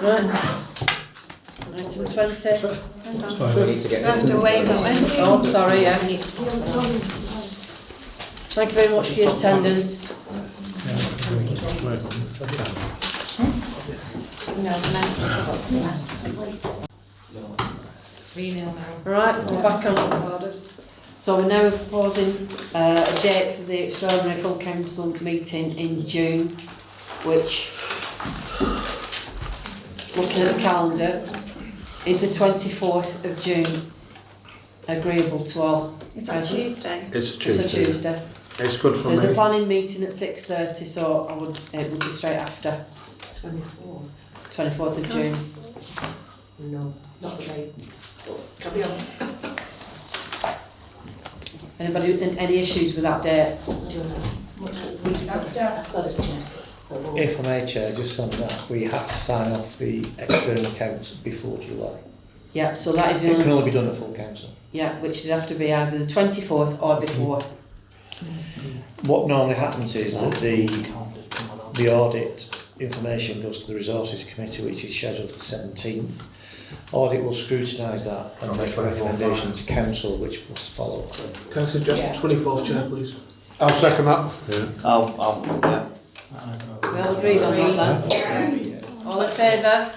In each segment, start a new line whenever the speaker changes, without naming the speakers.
Right. Item 20.
We need to get.
have to wait, don't we?
Oh, sorry, yeah. Thank you very much for your attendance.
No, no. Three nil now.
Right, we're back on. So we're now proposing uh, a date for the extraordinary full council meeting in June, which, looking at the calendar, is the 24th of June. Agreeable to all.
Is that Tuesday?
It's a
It's a
Tuesday.
Tuesday.
It's good for
There's a
me.
planning meeting at six thirty, so I would, it would be straight after. Twenty-fourth. Twenty-fourth of June.
No, not today. Carry on.
Anybody, an- any issues with that date?
If I may, Chair, just on that, we have to sign off the external accounts before July.
Yeah, so that is, the
It can
only-
only be done at full council.
yeah, which would have to be either the twenty-fourth or before.
What normally happens is that the, the audit information goes to the resources committee, which is scheduled for the seventeenth. Audit will scrutinise that and make a recommendation to council, which must follow.
Can I
Yeah.
suggest twenty-fourth chair, please?
I'll second that.
I'll, I'll, yeah.
We all agreed on that then? All in favour?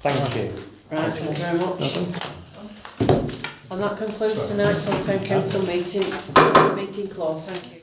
Thank you.
Right, thank you very much. And that concludes tonight's full-time council meeting, meeting clause, thank you.